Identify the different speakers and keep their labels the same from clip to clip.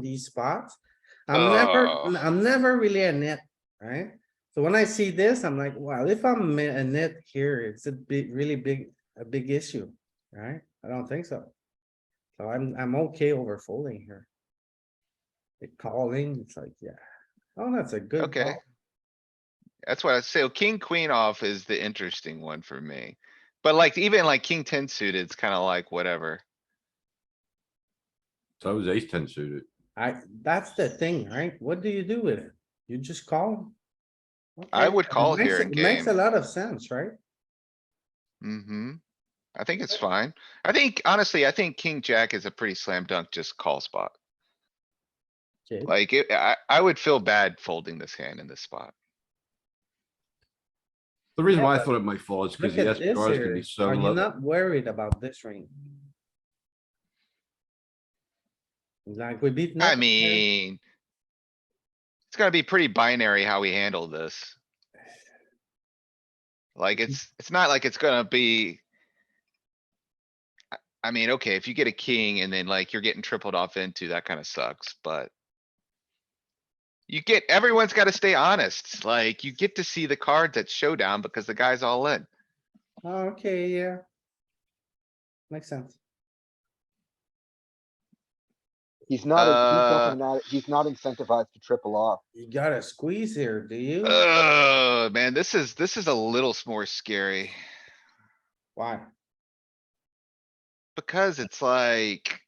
Speaker 1: these spots. I'm never,
Speaker 2: Oh.
Speaker 1: I'm never really a net, right? So when I see this, I'm like, wow, if I'm a net here, it's a big, really big, a big issue, right? I don't think so. So I'm, I'm okay over folding here. The calling, it's like, yeah, oh, that's a good
Speaker 2: Okay.
Speaker 1: call.
Speaker 2: That's what I say. King, queen off is the interesting one for me. But like even like king ten suited, it's kinda like whatever.
Speaker 3: So was ace ten suited.
Speaker 1: I, that's the thing, right? What do you do with it? You just call?
Speaker 2: I
Speaker 1: Okay,
Speaker 2: would
Speaker 1: it
Speaker 2: call
Speaker 1: makes-
Speaker 2: here in
Speaker 1: it Makes a
Speaker 2: game.
Speaker 1: lot of sense, right?
Speaker 2: Mm-hmm. I think it's fine. I think honestly, I think king jack is a pretty slam dunk just call spot.
Speaker 1: Okay,
Speaker 2: Like it, I, I would feel bad folding this hand in this spot.
Speaker 3: The reason
Speaker 1: Yeah,
Speaker 3: why I
Speaker 1: but
Speaker 3: thought it might fall is because
Speaker 1: look
Speaker 3: the
Speaker 1: at this
Speaker 3: SPRs can
Speaker 1: here.
Speaker 3: be so
Speaker 1: Are you
Speaker 3: low.
Speaker 1: not worried about this ring? Like we beat.
Speaker 2: I
Speaker 1: nothing here.
Speaker 2: mean. It's gonna be pretty binary how we handle this. Like it's, it's not like it's gonna be. I- I mean, okay, if you get a king and then like you're getting tripled off into, that kinda sucks, but. You get, everyone's gotta stay honest, like you get to see the cards at showdown because the guy's all in.
Speaker 1: Oh, Okay, yeah. Makes sense.
Speaker 4: He's not, a-
Speaker 2: Uh,
Speaker 4: he's definitely not, he's not incentivized to triple off.
Speaker 1: You gotta squeeze here, do you?
Speaker 2: Oh, man, this is, this is a little s- more scary.
Speaker 1: Why?
Speaker 2: Because it's like,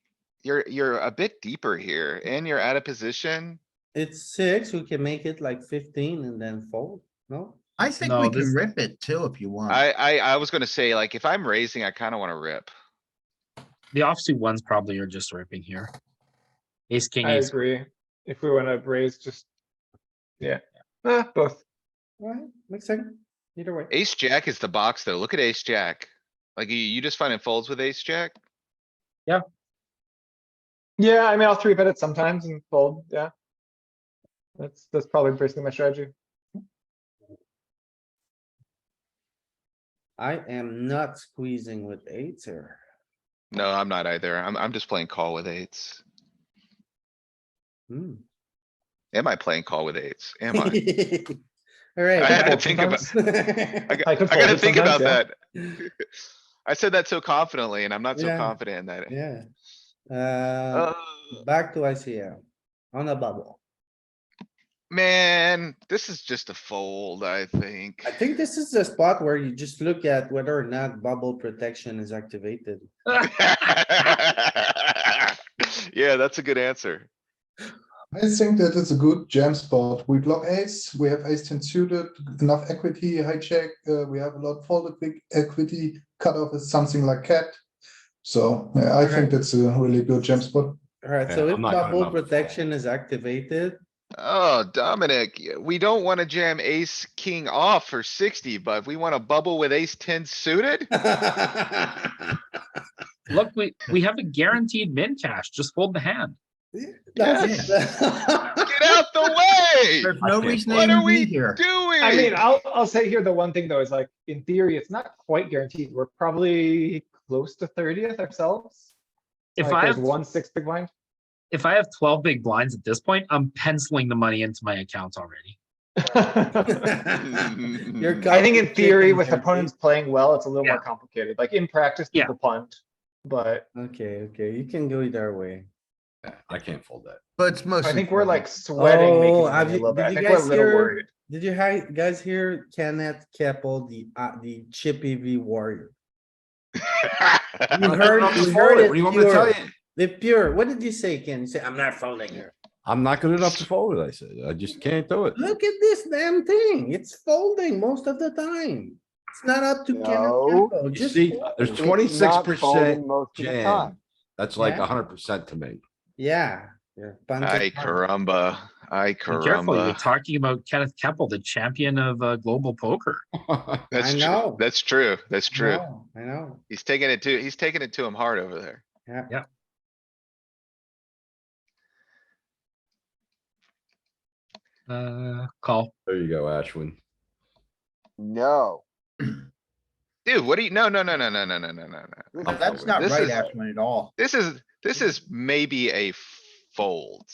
Speaker 2: you're, you're a bit deeper here
Speaker 1: Mm.
Speaker 2: and you're out of position.
Speaker 1: It's six, we can make it like fifteen and then fold, no?
Speaker 5: I think we can rip it too if you want.
Speaker 2: I, I, I was gonna say, like, if I'm raising, I kinda wanna rip.
Speaker 6: The offsuit ones probably are just ripping here. Ace, king,
Speaker 7: I
Speaker 6: ace.
Speaker 7: agree. If we wanna raise, just. Yeah, eh, both.
Speaker 1: Right, makes sense, either way.
Speaker 2: Ace jack is the box though. Look at ace jack. Like, you, you just find it folds with ace jack?
Speaker 7: Yeah, I mean, I'll three bet it sometimes and fold, yeah. That's, that's probably basically my strategy.
Speaker 1: I am not squeezing with eights here.
Speaker 2: No, I'm not either. I'm, I'm just playing call with eights.
Speaker 1: Hmm.
Speaker 2: Am I playing call with eights? Am I?
Speaker 1: Alright.
Speaker 2: I had to
Speaker 7: fold
Speaker 2: think about, I
Speaker 1: sometimes.
Speaker 2: got-
Speaker 7: I could
Speaker 2: I
Speaker 7: fold
Speaker 2: gotta
Speaker 7: it
Speaker 2: think about
Speaker 7: sometimes,
Speaker 2: that. I said that so confidently and I'm not so
Speaker 1: Yeah.
Speaker 2: confident in that.
Speaker 1: Yeah. Uh,
Speaker 2: Uh,
Speaker 1: back to ICM, on a bubble.
Speaker 2: man, this is just a fold, I think.
Speaker 1: I think this is the spot where you just look at whether or not bubble protection is activated.
Speaker 2: Yeah, that's a good answer.
Speaker 8: I think that it's a good jam spot. We block ace, we have ace ten suited, enough equity, hijack, uh, we have a lot folded big equity, cutoff is something like cat. So yeah, I think that's a really good jam spot.
Speaker 1: Alright,
Speaker 3: Yeah,
Speaker 1: so if
Speaker 3: I'm not
Speaker 1: bubble
Speaker 3: gonna bubble fold.
Speaker 1: protection is activated,
Speaker 2: Oh, Dominic, y- we don't wanna jam ace, king off for sixty, but if we wanna bubble with ace ten suited?
Speaker 6: Look, we, we have a guaranteed min cash. Just fold the hand.
Speaker 1: that's-
Speaker 2: Get out the
Speaker 6: There's no
Speaker 3: Okay.
Speaker 6: reason
Speaker 2: What
Speaker 6: they
Speaker 2: are
Speaker 6: even
Speaker 2: we
Speaker 6: be here.
Speaker 2: way! Doing.
Speaker 7: I mean, I'll, I'll say here, the one thing though is like, in theory, it's not quite guaranteed. We're probably close to thirtieth ourselves.
Speaker 6: If
Speaker 7: Like,
Speaker 6: I
Speaker 7: there's
Speaker 6: have,
Speaker 7: One six big blind.
Speaker 6: if I have twelve big blinds at this point, I'm penciling the money into my account already.
Speaker 2: Mm.
Speaker 7: I think in
Speaker 1: counting
Speaker 7: theory,
Speaker 1: chickens
Speaker 7: with
Speaker 1: there, Pete.
Speaker 7: opponents playing well, it's a little
Speaker 6: Yeah.
Speaker 7: more complicated. Like in practice,
Speaker 6: Yeah.
Speaker 7: people punt, but
Speaker 1: Okay, okay, you can go either way.
Speaker 3: I can't fold that.
Speaker 5: But it's
Speaker 7: I
Speaker 5: mostly.
Speaker 7: think we're
Speaker 5: folding.
Speaker 7: like sweating making
Speaker 1: Oh,
Speaker 7: the
Speaker 1: have
Speaker 7: money a
Speaker 1: you-
Speaker 7: little bit.
Speaker 1: did
Speaker 7: I
Speaker 1: you
Speaker 7: think we're a
Speaker 1: guys
Speaker 7: little
Speaker 1: hear-
Speaker 7: worried.
Speaker 1: Did you hi- guys hear Kenneth Keppel, the, uh, the Chippy V warrior? You
Speaker 3: I
Speaker 1: heard,
Speaker 3: can't
Speaker 1: you
Speaker 3: fold
Speaker 1: heard
Speaker 3: it.
Speaker 1: it
Speaker 3: What do you want me to tell
Speaker 1: pure,
Speaker 3: you?
Speaker 1: the pure, what did you say, Ken? You said, I'm not folding here.
Speaker 3: I'm not good enough to fold it, I said. I just can't do it.
Speaker 1: Look at this damn thing. It's folding most of the time. It's not up to. Kenneth
Speaker 4: No.
Speaker 1: Campbell,
Speaker 3: You
Speaker 1: just
Speaker 3: see,
Speaker 1: fold.
Speaker 3: there's
Speaker 4: It's
Speaker 3: twenty six
Speaker 4: not folding
Speaker 3: percent
Speaker 4: Most of the time.
Speaker 3: jam. That's like
Speaker 1: Yeah.
Speaker 3: hundred percent to me.
Speaker 1: Yeah. yeah, bunch of
Speaker 2: Ay
Speaker 1: fun.
Speaker 2: caramba, ay
Speaker 6: Be careful, you're
Speaker 2: caramba.
Speaker 6: talking about Kenneth Keppel, the champion of uh, global poker.
Speaker 2: That's
Speaker 1: I
Speaker 2: true,
Speaker 1: know.
Speaker 2: that's true, that's
Speaker 1: I
Speaker 2: true.
Speaker 1: know, I know,
Speaker 2: He's taking it to, he's taking it to him hard over there.
Speaker 1: yeah.
Speaker 6: Yeah. Uh, call.
Speaker 3: There you go, Ashwin.
Speaker 4: No.
Speaker 2: Dude, what do you, no, no, no, no, no, no, no, no, no, no.
Speaker 4: This
Speaker 5: Oh,
Speaker 4: is
Speaker 5: That's not
Speaker 2: This
Speaker 5: right,
Speaker 2: is-
Speaker 5: Ashwin, at all.
Speaker 2: This is, this is maybe a fold.